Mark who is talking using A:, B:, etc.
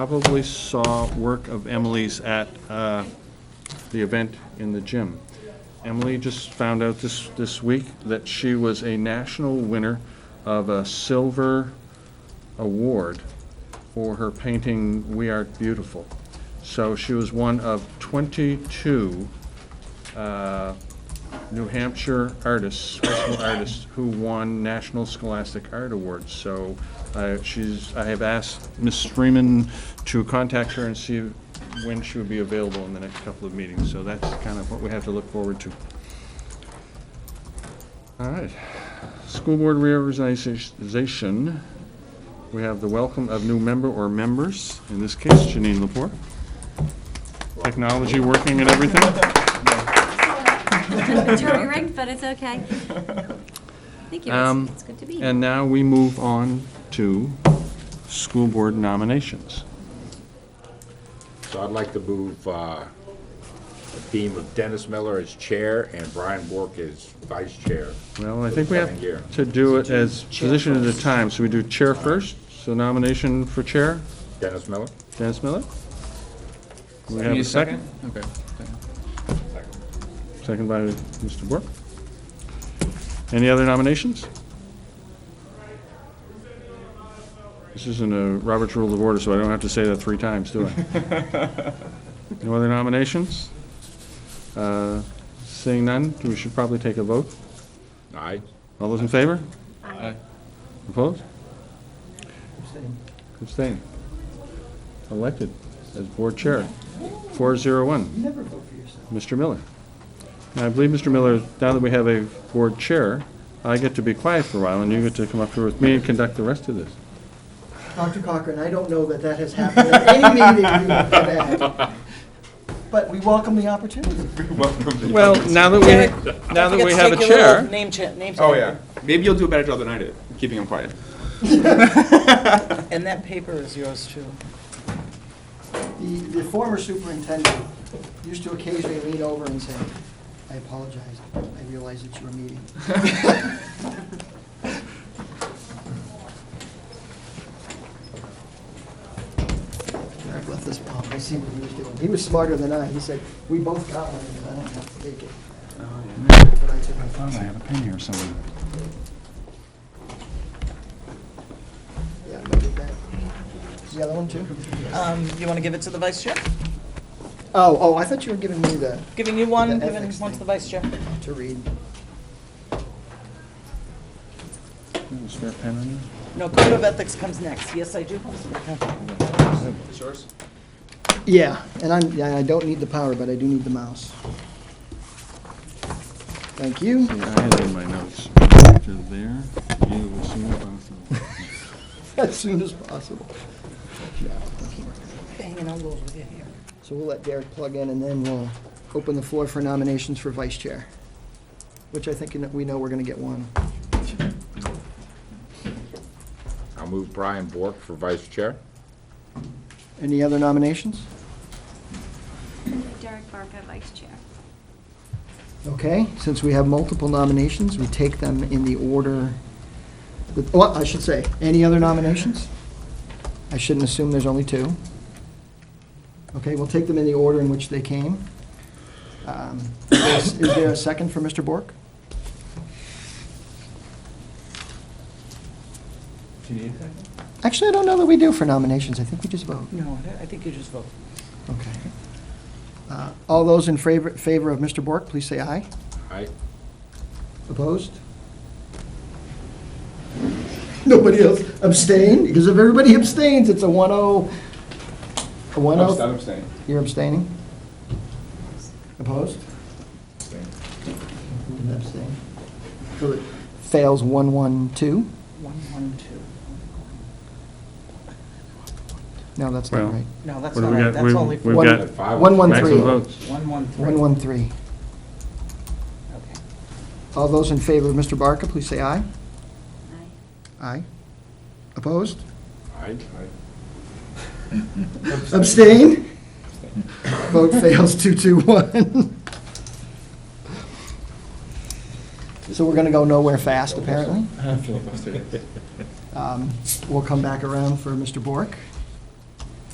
A: probably saw work of Emily's at uh, the event in the gym. Emily just found out this, this week that she was a national winner of a silver award for her painting We Are Beautiful. So she was one of 22 uh, New Hampshire artists, special artists, who won National Scholastic Art Awards. So uh, she's, I have asked Ms. Freeman to contact her and see when she would be available in the next couple of meetings. So that's kind of what we have to look forward to. All right. School Board reorganization, we have the welcome of new member or members, in this case Janine Lepore. Technology working and everything.
B: jury rigged, but it's okay. Thank you,
A: Um,
B: it's, it's good to be here.
A: And now we move on to school board nominations.
C: So I'd like to move uh, the theme of Dennis Miller as chair and Brian Bork as vice chair.
A: Well, I think we
C: Coming year.
A: have to do it as position at a time, so we do chair first, so nomination for chair,
C: Dennis Miller?
A: Dennis Miller. Do We
D: Give
A: have
D: me
A: a second,
D: Okay.
A: second by Mr. Bork. Any other nominations? This isn't a Robert's Rule of Order, so I don't have to say that three times, do I? No other nominations? Uh, Seeing none, we should probably take a vote.
C: Aye.
A: All those in favor?
D: Aye.
A: Opposed? Abstain. Elected as board chair, 401. never vote for yourself. Mr. Miller. And I believe, Mr. Miller, now that we have a board chair, I get to be quiet for a while, and you get to come up here with me and conduct the rest of this.
E: Dr. Cochran, I don't know that that has happened at any meeting you've been at. But we welcome the opportunity.
A: Well, now that
F: Derek,
A: we, now that we have a
F: Take your little
A: chair,
F: Name check, name
D: Oh,
F: check.
D: yeah. Maybe you'll do a better job than I did, keeping him quiet.
F: And that paper is yours too.
E: The, the former superintendent used to occasionally lean over and say, I apologize, I realize it's your meeting. I've left this bomb, I see what he was doing. He was smarter than I, he said, we both got one, and I don't have to take it. That's what I took.
A: I had a pen here somewhere.
E: Yeah, I'm gonna get that. The other one too?
F: Um, you want to give it to the vice chair?
E: Oh, oh, I thought you were giving me the,
F: Giving you one,
E: The
F: giving
E: ethics
F: one to
E: thing.
F: the vice chair.
E: to read.
A: Spare pen on you?
F: No, code of ethics comes next. Yes, I do. Okay.
D: It's yours?
E: Yeah, and I'm, yeah, I don't need the power, but I do need the mouse. Thank you.
A: Yeah, I had it in my notes. After there, you as soon as possible.
E: As soon as possible. Yeah, that's all right.
F: Hanging out a little bit here.
E: So we'll let Derek plug in and then we'll open the floor for nominations for vice chair, which I think we know we're gonna get one.
C: I'll move Brian Bork for vice chair.
E: Any other nominations?
B: Derek Barker, Vice Chair.
E: Okay, since we have multiple nominations, we take them in the order, that- well, I should say, any other nominations? I shouldn't assume there's only two. Okay, we'll take them in the order in which they came. Um, Is is there a second for Mr. Bork? Actually, I don't know that we do for nominations, I think we just vote.
F: No, I think you just vote.
E: Okay. Uh, All those in favor favor of Mr. Bork, please say aye.
C: Aye.
E: Opposed? Nobody else abstained? Because if everybody abstains, it's a 1-0, a 1-0.
D: abstaining.
E: You're abstaining? Opposed? You abstain. So it Fails 1-1-2?
F: One, one, two.
E: No, that's not
A: Well,
E: right.
F: No, that's
A: What do
F: not
A: we
F: right.
A: got?
F: That's
A: We've-
F: only.
A: we've
E: One-
A: got
C: Five.
E: One, one,
A: Maximum
E: three.
A: votes.
F: One, one, three.
E: 1-1-3.
F: Okay.
E: All those in favor of Mr. Barker, please say aye.
B: Aye.
E: Aye. Opposed?
C: Aye.
E: Abstain? Vote fails two, two, one. So we're going to go nowhere fast, apparently. Um, We'll come back around for Mr. Bork.